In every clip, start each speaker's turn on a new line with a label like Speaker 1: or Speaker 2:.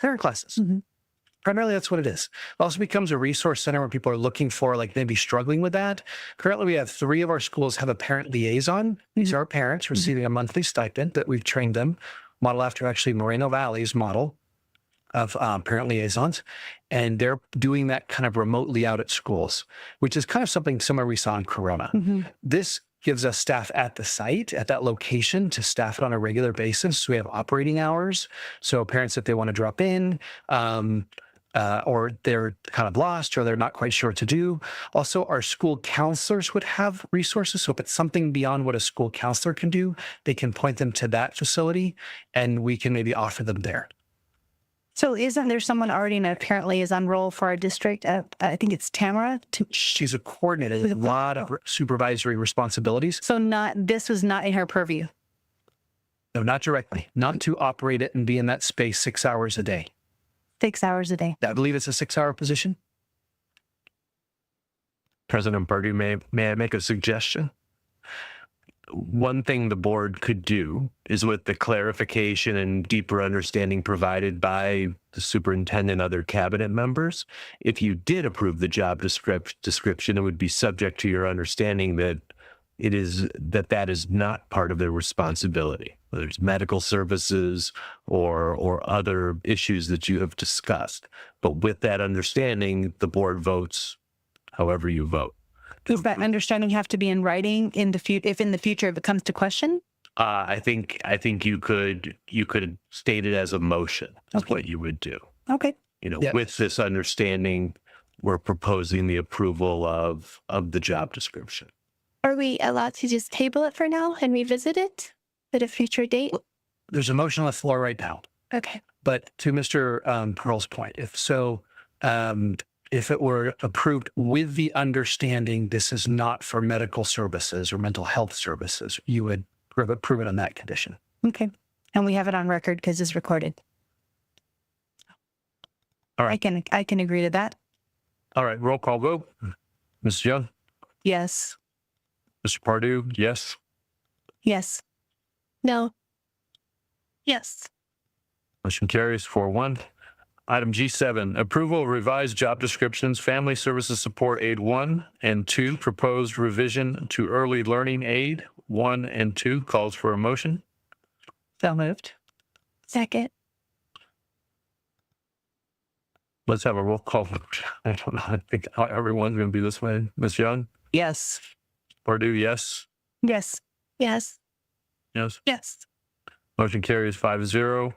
Speaker 1: parent classes.
Speaker 2: Mhm.
Speaker 1: Primarily, that's what it is. It also becomes a resource center when people are looking for, like, maybe struggling with that. Currently, we have three of our schools have a parent liaison. These
Speaker 2: Mhm.
Speaker 1: are parents receiving a monthly stipend that we've trained them, model after actually Moreno Valley's model of um, parent liaisons. And they're doing that kind of remotely out at schools, which is kind of something similar we saw in Corona
Speaker 3: Mm-hmm.
Speaker 2: Mhm.
Speaker 1: this gives us staff at the site at that location to staff it on a regular basis so we have operating hours so parents if they want to drop in um, uh, or they're kind of lost or they're not quite sure what to do also our school counselors would have resources so if it's something beyond what a school counselor can do they can point them to that facility and we can maybe offer them there
Speaker 2: So isn't there someone already in a parent liaison role for our district? Uh, I think it's Tamara. To,
Speaker 1: she's a coordinator with a lot of supervisory responsibilities
Speaker 2: so not this was not in her purview.
Speaker 1: no not directly not to operate it and be in that space six hours a day
Speaker 2: Six hours a day.
Speaker 1: I believe it's a six hour position.
Speaker 3: President Purdue, may, may I make a suggestion? One thing the board could do is with the clarification and deeper understanding provided by the superintendent and other cabinet members, if you did approve the job descrip- description, it would be subject to your understanding that it is that that is not part of their responsibility, whether it's medical services or or other issues that you have discussed. But with that understanding, the board votes however you vote.
Speaker 2: Does
Speaker 3: Mm-hmm.
Speaker 2: that understanding have to be in writing in the future? If in the future it comes to question,
Speaker 3: Uh, I think I think you could you could state it as a motion is
Speaker 2: Okay.
Speaker 3: what you would do.
Speaker 2: okay.
Speaker 3: You know,
Speaker 1: Yeah.
Speaker 3: with this understanding, we're proposing the approval of of the job description.
Speaker 4: Are we allowed to just table it for now and revisit it at a future date?
Speaker 1: There's a motion on the floor right now.
Speaker 4: Okay.
Speaker 1: But to Mr. Um, Pearl's point, if so, um, if it were approved with the understanding this is not for medical services or mental health services, you would approve it- approve it on that condition.
Speaker 2: Okay. And we have it on record because it's recorded.
Speaker 3: All right.
Speaker 2: I can, I can agree to that.
Speaker 3: All right, roll call vote.
Speaker 1: Mrs. Young?
Speaker 2: Yes.
Speaker 3: Mr. Pardue, yes.
Speaker 2: Yes.
Speaker 4: No.
Speaker 2: Yes.
Speaker 3: Motion carries four one. Item G seven, approval of revised job descriptions, family services support aid one and two, proposed revision to early learning aid one and two calls for a motion.
Speaker 2: So moved.
Speaker 4: Second.
Speaker 3: Let's have a roll call. vote. I don't know. I think everyone's going to be this way. Ms. Young,
Speaker 2: Yes.
Speaker 3: Purdue, yes.
Speaker 2: Yes.
Speaker 4: Yes.
Speaker 3: Yes.
Speaker 2: Yes.
Speaker 3: Motion carries five zero.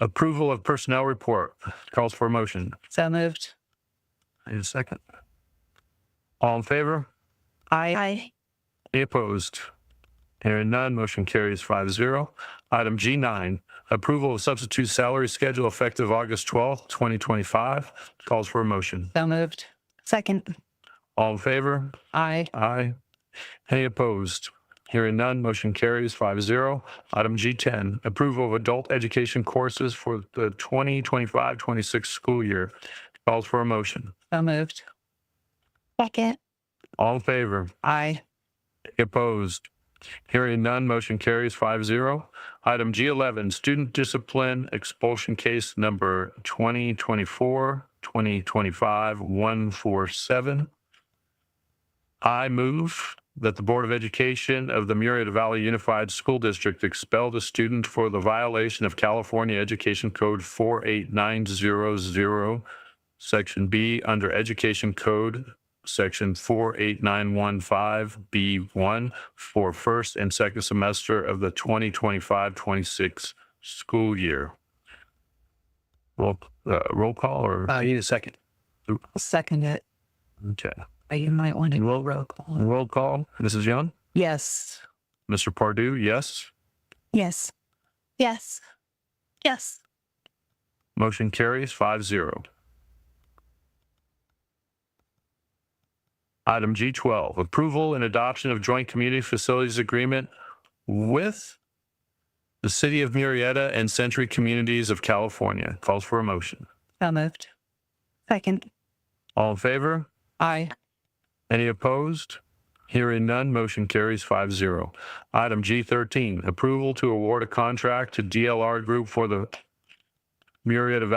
Speaker 3: Approval of personnel report calls for a motion.
Speaker 2: So moved.
Speaker 3: Need a second? All in favor?
Speaker 2: I
Speaker 4: I.
Speaker 3: Any opposed? Hearing none, motion carries five zero. Item G9, approval of substitute salary schedule effective August 12th, 2025 calls for a motion.
Speaker 2: So moved. Second.
Speaker 3: All in favor?
Speaker 2: I
Speaker 3: Aye. Any opposed? Hearing none, motion carries 5-0. Item G10, approval of adult education courses for the 2025-26 school year. Calls for a motion.
Speaker 2: So moved.
Speaker 4: Second.
Speaker 3: All in favor?
Speaker 2: I
Speaker 3: Opposed? Hearing none, motion carries 5-0. Item G11, student discipline expulsion case number 2024, 2025, 147. I move that the Board of Education of the Murrieta Valley Unified School District expel the student for the violation of California Education Code 48900, Section B, under Education Code Section 48915B1 for first and second semester of the 2025-26 school year. Roll, uh, roll call or?
Speaker 1: Uh, you need a second.
Speaker 2: second it. Uh,
Speaker 3: Okay.
Speaker 2: You might want to
Speaker 3: Roll-
Speaker 2: roll call.
Speaker 3: Roll call. Mrs. Young?
Speaker 2: Yes.
Speaker 3: Mr. Pardue, yes.
Speaker 2: Yes.
Speaker 4: Yes.
Speaker 2: Yes.
Speaker 3: Motion carries 5-0. Item G12, approval and adoption of joint community facilities agreement with the City of Murrieta and Century Communities of California. Calls for a motion.
Speaker 2: So moved. Second.
Speaker 3: All in favor?
Speaker 2: I
Speaker 3: Any opposed? Hearing none, motion carries 5-0. Item G13, approval to award a contract to DLR Group for the myriad of